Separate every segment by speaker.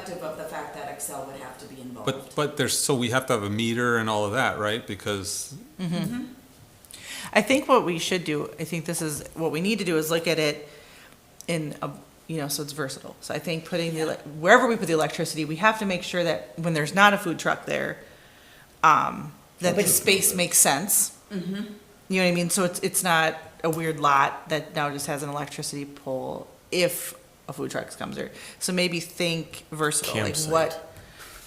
Speaker 1: irrespective of the fact that Excel would have to be involved.
Speaker 2: But, but there's, so we have to have a meter and all of that, right? Because,
Speaker 3: I think what we should do, I think this is, what we need to do is look at it in, a you know, so it's versatile. So I think putting the, ele- wherever we put the electricity, we have to make sure that when there's not a food truck there, um, that the space makes sense. You know what I mean? So it's, it's not a weird lot that now just has an electricity pole if a food truck comes there. So maybe think versatile, like
Speaker 4: Campsite.
Speaker 3: what,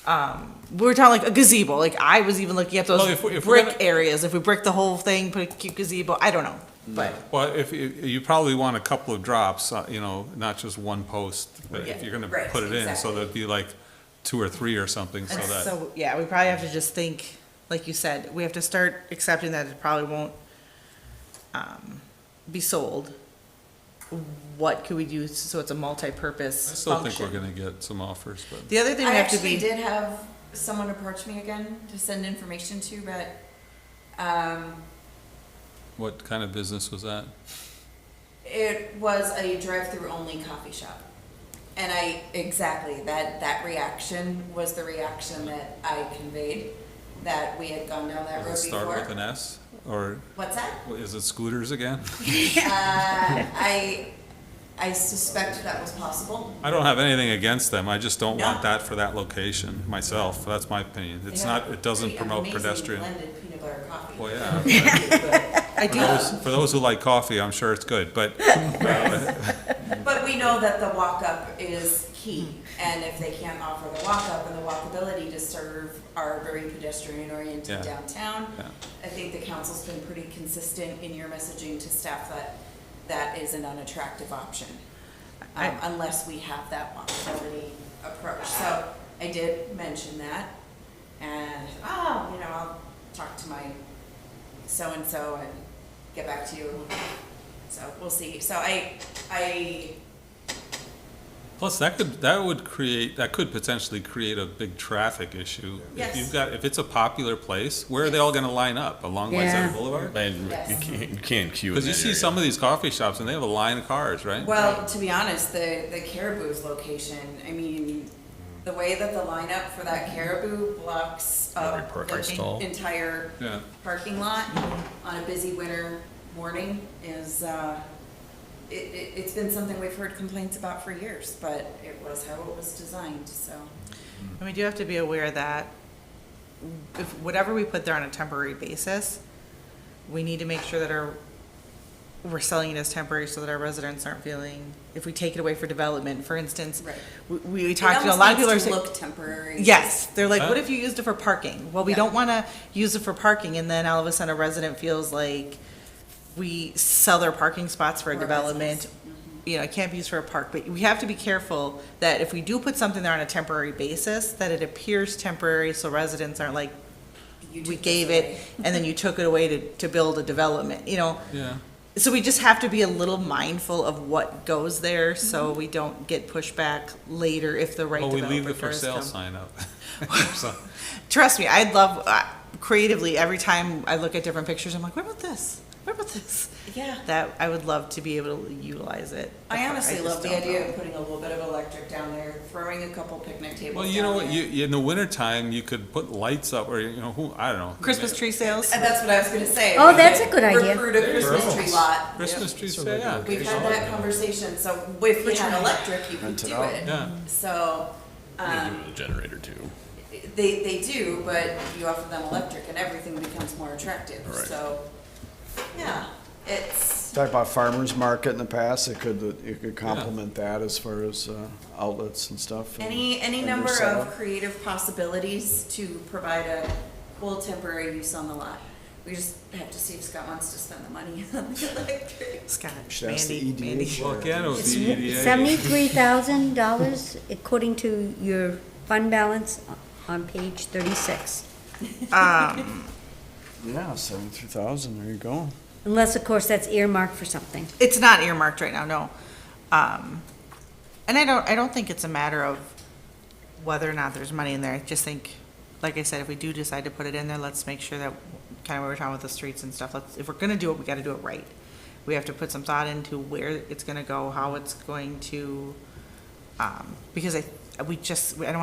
Speaker 3: um, we were talking like a gazebo. Like I was even looking at those
Speaker 2: Well, if we- if we're
Speaker 3: brick
Speaker 2: gonna-
Speaker 3: areas. If we brick the whole thing, put a cute gazebo. I don't know, but
Speaker 2: well, if, if- you probably want a couple of drops, uh, you know, not just one post, but if
Speaker 1: Yeah,
Speaker 2: you're gonna
Speaker 1: right,
Speaker 2: put it in, so
Speaker 1: exactly.
Speaker 2: there'd be like two or three or something, so
Speaker 3: And
Speaker 2: that,
Speaker 3: so yeah, we probably have to just think, like you said, we have to start accepting that it probably won't um, be sold. What could we do so it's a multi-purpose
Speaker 2: I still think
Speaker 3: function?
Speaker 2: we're gonna get some offers, but.
Speaker 3: the other thing
Speaker 1: I
Speaker 3: we have to
Speaker 1: actually
Speaker 3: be
Speaker 1: did have someone approach me again to send information to, but, um,
Speaker 2: What kind of business was that?
Speaker 1: It was a drive-through only coffee shop. And I, exactly, that, that reaction was the reaction that I conveyed, that we had gone down that road
Speaker 2: Does it start with
Speaker 1: before.
Speaker 2: an S, or
Speaker 1: What's that?
Speaker 2: is it scooters again?
Speaker 1: Uh, I, I suspect that was possible.
Speaker 2: I don't have anything against them, I just don't want
Speaker 1: No.
Speaker 2: that for that location, myself, that's my opinion.
Speaker 1: They
Speaker 2: It's
Speaker 1: have
Speaker 2: not, it doesn't
Speaker 1: pretty
Speaker 2: promote
Speaker 1: amazing
Speaker 2: pedestrian.
Speaker 1: Blended peanut butter coffee.
Speaker 2: Well, yeah.
Speaker 3: I
Speaker 2: For
Speaker 3: do
Speaker 2: those, for those who like coffee, I'm sure it's good, but
Speaker 1: But we know that the walk-up is key, and if they can't offer the walk-up and the walkability to serve our very pedestrian-oriented
Speaker 2: Yeah.
Speaker 1: downtown,
Speaker 2: Yeah.
Speaker 1: I think the council's been pretty consistent in your messaging to staff that that is an unattractive option,
Speaker 3: I-
Speaker 1: um, unless we have that walkability approach. So I did mention that, and, oh, you know, I'll talk to my so-and-so and get back to you. So we'll see. So I, I
Speaker 2: Plus, that could, that would create, that could potentially create a big traffic issue. If
Speaker 1: Yes.
Speaker 2: you've got, if it's a popular place, where are they all gonna line up? Along
Speaker 5: Yeah.
Speaker 2: Whiteside Boulevard?
Speaker 4: And you
Speaker 1: Yes.
Speaker 4: can't, you can't queue in
Speaker 2: Because you
Speaker 4: that
Speaker 2: see
Speaker 4: area.
Speaker 2: some of these coffee shops and they have a line of cars, right?
Speaker 1: Well, to be honest, the, the caribou's location, I mean, the way that the lineup for that caribou blocks
Speaker 4: Every
Speaker 1: up
Speaker 4: parking
Speaker 1: the
Speaker 4: stall.
Speaker 1: en- entire
Speaker 2: Yeah.
Speaker 1: parking lot on a busy winter morning is, uh, it, it, it's been something we've heard complaints about for years, but it was how it was designed, so.
Speaker 3: And we do have to be aware that if, whatever we put there on a temporary basis, we need to make sure that our, we're selling it as temporary so that our residents aren't feeling, if we take it away for development, for instance,
Speaker 1: Right.
Speaker 3: we, we
Speaker 1: It
Speaker 3: talked, to a lot of people are
Speaker 1: almost needs to
Speaker 3: saying.
Speaker 1: Look temporary.
Speaker 3: Yes, they're like, what
Speaker 2: Huh?
Speaker 3: if you used it for parking? Well, we
Speaker 1: Yeah.
Speaker 3: don't want to use it for parking, and then all of a sudden a resident feels like we sell their parking spots for a
Speaker 1: For a
Speaker 3: development.
Speaker 1: business.
Speaker 3: You know, it can't be used for a park, but we have to be careful that if we do put something there on a temporary basis, that it appears temporary, so residents aren't like,
Speaker 1: You
Speaker 3: we
Speaker 1: took
Speaker 3: gave
Speaker 1: this
Speaker 3: it,
Speaker 1: away.
Speaker 3: and then you took it away to, to build a development, you know?
Speaker 2: Yeah.
Speaker 3: So we just have to be a little mindful of what goes there, so
Speaker 1: Mm-hmm.
Speaker 3: we don't get pushback later if the right
Speaker 2: Well, we leave the
Speaker 3: developer
Speaker 2: for
Speaker 3: does
Speaker 2: sale
Speaker 3: come.
Speaker 2: sign up. So,
Speaker 3: Trust me, I'd love uh, creatively every time I look at different pictures. I'm like, what about this? What about this?
Speaker 1: Yeah.
Speaker 3: That I would love to be able to utilize it.
Speaker 1: I honestly
Speaker 3: just
Speaker 1: love the
Speaker 3: don't know.
Speaker 1: idea of putting a little bit of electric down there, throwing a couple picnic tables
Speaker 2: Well, you know
Speaker 1: down
Speaker 2: what,
Speaker 1: there.
Speaker 2: you, in the wintertime, you could put lights up or, you know, who, I don't know.
Speaker 3: Christmas tree sales.
Speaker 1: And Uh, that's what I was gonna say.
Speaker 5: Oh,
Speaker 1: We
Speaker 5: that's
Speaker 1: could
Speaker 5: a good idea.
Speaker 1: Recruit a Christmas tree lot.
Speaker 2: Christmas trees,
Speaker 4: So they
Speaker 2: yeah.
Speaker 4: do.
Speaker 1: We've had that conversation, so if you had electric, you could
Speaker 4: Rent it
Speaker 1: do
Speaker 4: out.
Speaker 1: it.
Speaker 2: Yeah.
Speaker 1: So,
Speaker 4: You can do
Speaker 1: um,
Speaker 4: it with a generator too.
Speaker 1: they, they do, but you offer them electric and everything becomes more attractive,
Speaker 4: Right.
Speaker 1: so, yeah, it's,
Speaker 6: Talked about farmer's market in the past, it could, it could complement that as far as uh, outlets and stuff. and-
Speaker 1: any, any
Speaker 6: and
Speaker 1: number
Speaker 6: yourself.
Speaker 1: of creative possibilities to provide a cool temporary use on the lot. We just have to see if Scott wants to spend the money on the electric.
Speaker 3: Scott,
Speaker 6: Should ask the E
Speaker 3: Mandy,
Speaker 6: EDA
Speaker 3: Mandy.
Speaker 6: chair.
Speaker 2: Well, again, it would
Speaker 5: It's
Speaker 2: be EDA.
Speaker 5: seventy-three thousand dollars according to your fund balance on page thirty-six.
Speaker 6: Yeah, seventy-three thousand, there you go.
Speaker 5: Unless, of course, that's earmarked for something.
Speaker 3: It's not earmarked right now. No. Um, and I don't. I don't think it's a matter of whether or not there's money in there. I just think, like I said, if we do decide to put it in there, let's make sure that kind of what we're talking about the streets and stuff. Let's if we're gonna do it, we got to do it right. We have to put some thought into where it's gonna go, how it's going to, um, because I we just, I don't want